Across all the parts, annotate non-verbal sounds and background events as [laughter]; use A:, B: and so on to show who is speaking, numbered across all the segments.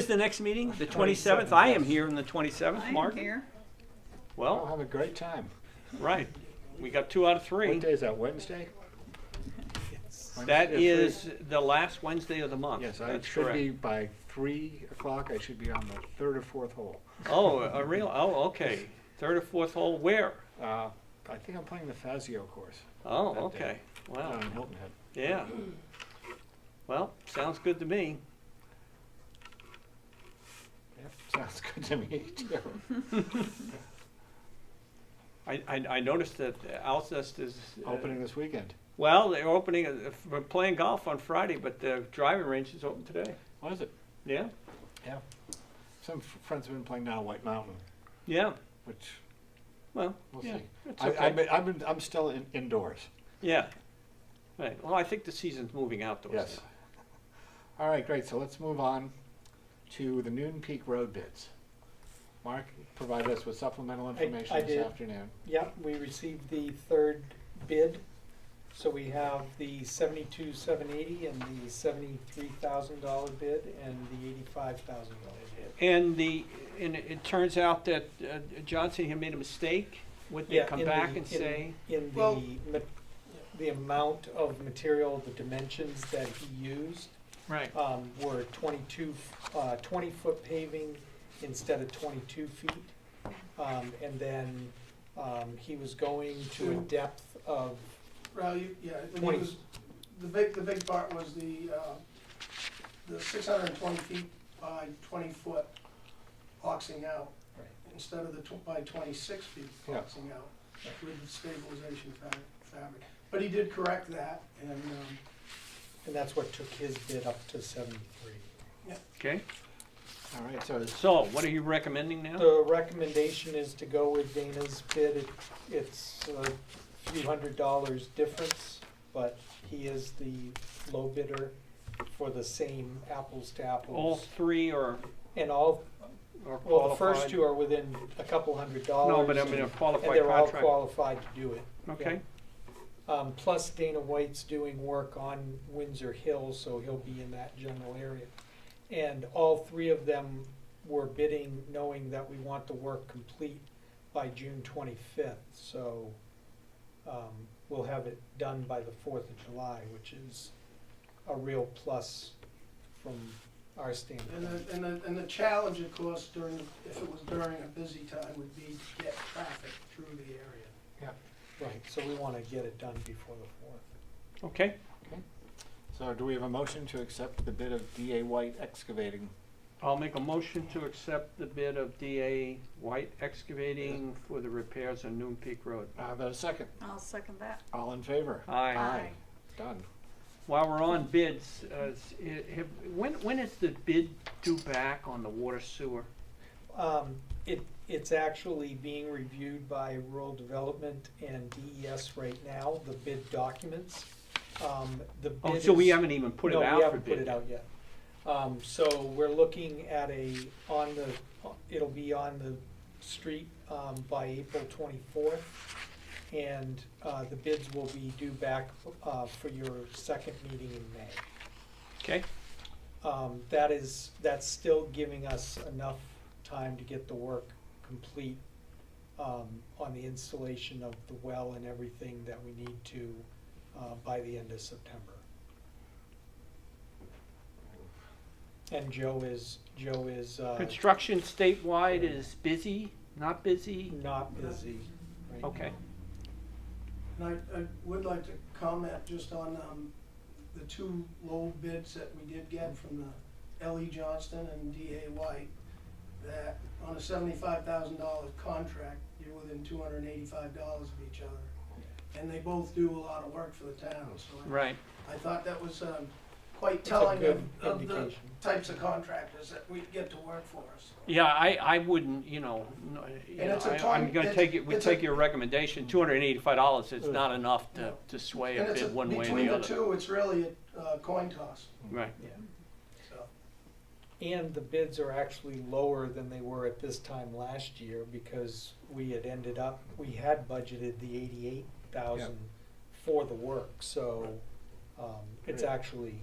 A: Is the next meeting, the 27th? I am here on the 27th,
B: I'm
A: Mark.
B: here.
A: Well,
C: I'll have a great time.
A: right. We got two out of
C: What
A: three.
C: day is that, Wednesday?
A: That
C: Wednesday at
A: is
C: three?
A: the last Wednesday of the month.
C: Yes, I
A: That's
C: should be
A: correct.
C: by three o'clock, I should be on the third or fourth hole.
A: Oh, a real, oh, okay. Third or fourth hole, where?
C: Uh, I think I'm playing the Fazio course
A: Oh,
C: That
A: okay.
C: day.
A: Wow,
C: down in Hilton Head.
A: yeah. Well, sounds good to me.
C: Yep, Sounds good to me [laughs] too.
A: I, I, I noticed that Alcest is. uh,
C: Opening this weekend.
A: Well, they're opening, uh, we're playing golf on Friday, but the driving range is open today.
C: What is it?
A: Yeah,
C: Yeah. Some f- friends have been playing down at White Mountain,
A: yeah,
C: which
A: well,
C: we'll
A: yeah.
C: see.
A: it's
C: I,
A: okay.
C: I've been, I've been, I'm still in- indoors.
A: Yeah. Right. Well, I think the season's moving outdoors.
C: Yes.
A: now.
C: All right, great, so let's move on to the Noon Peak Road bids. Mark provided us with supplemental information
D: I
C: this
D: did.
C: afternoon.
D: Yep, we received the third bid, so we have the seventy-two, seven eighty, and the seventy-three thousand dollar bid, and the eighty-five thousand dollar bid.
A: And the and it, it turns out that uh, Johnson had made a mistake. Would they
D: Yeah,
A: come
D: in
A: back
D: the-
A: and
D: in-
A: say,
D: In
B: Well-
D: the, ma- the amount of material, the dimensions that he used,
A: right?
D: um, were twenty-two, uh, twenty-foot paving instead of twenty-two feet. Um, and then, um, he was going to a depth of,
E: Well, you, yeah, I think
D: Twenty.
E: it was, the big, the big part was the, uh, the six hundred and twenty feet by twenty foot boxing out,
D: Right.
E: instead of the tw- by twenty-six feet
C: Yeah.
E: boxing out with the stabilization fa- fabric. But he did correct that, and, um,
D: and that's what took his bid up to seventy-three.
A: Okay.
C: All right, so it's
A: So, what are you recommending now?
D: The recommendation is to go with Dana's bid. It- It's a few hundred dollars difference, but he is the low bidder for the same apples to
A: All
D: apples.
A: three are
D: And all,
A: are Oh. qualified.
D: well, the first two are within a couple hundred dollars.
A: No, but I mean a
D: And
A: qualified
D: they're all
A: contract.
D: qualified to do it.
A: okay.
D: Um, plus Dana White's doing work on Windsor Hill, so he'll be in that general area. And all three of them were bidding, knowing that we want the work complete by June twenty-fifth, so, um, we'll have it done by the fourth of July, which is a real plus from our
E: and
D: standpoint.
E: the, and the, and the challenge, of course, during, if it was during a busy time, would be to get traffic through the area.
D: Right, so we wanna get it done before the fourth.
A: Okay.
C: So do we have a motion to accept the bid of DA White Excavating?
A: I'll make a motion to accept the bid of DA White Excavating for the repairs on Noon Peak Road.
C: I have a second.
B: I'll second that.
C: All in favor?
A: Uh, Aye.
B: Aye.
C: Done.
A: While we're on bids, uh, s- i- have, when, when is the bid due back on the water sewer?
D: Um, it, it's actually being reviewed by Rural Development and DES right now, the bid documents. Um, the
A: Oh,
D: bid
A: so we
D: is-
A: haven't even put it
D: No,
A: out
D: we
A: for
D: haven't
A: bid.
D: put it out yet. Um, so we're looking at a, on the, it'll be on the street, um, by April twenty-fourth. And, uh, the bids will be due back, uh, for your second meeting in May.
A: Okay,
D: Um, that is, that's still giving us enough time to get the work complete, um, on the installation of the well and everything that we need to, uh, by the end of September. And Joe is, Joe is, uh,
A: construction statewide is busy, not busy?
E: Mm.
D: not busy right now.
A: Okay,
E: And I, I would like to comment just on, um, the two low bids that we did get from the L.E. Johnston and D.A. White, that on a seventy-five thousand dollar contract, you're within two hundred and eighty-five dollars of each other. And they both do a lot of work for the town, so
A: right,
E: I, I thought that was, um, quite
D: It's a
E: telling of,
D: good
E: of the
D: indication.
E: types of contractors that we get to work for us.
A: yeah, I, I wouldn't, you know, no, you
E: And
A: know,
E: it's a
A: I- I'm
E: time-
A: gonna
E: it's-
A: take it, we
E: it's a- Mm.
A: take your recommendation, two hundred and eighty-five dollars is
C: Ugh.
A: not enough to, to sway
E: And
A: a
E: it's a-
A: bid one way or
E: between
A: the
E: the
A: other.
E: two, it's really a uh, coin toss,
A: Right,
E: so.
D: And the bids are actually lower than they were at this time last year because we had ended up, we had budgeted the eighty-eight thousand for the work, so, um, it's
C: Right.
D: actually,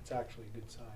D: it's actually a good sign.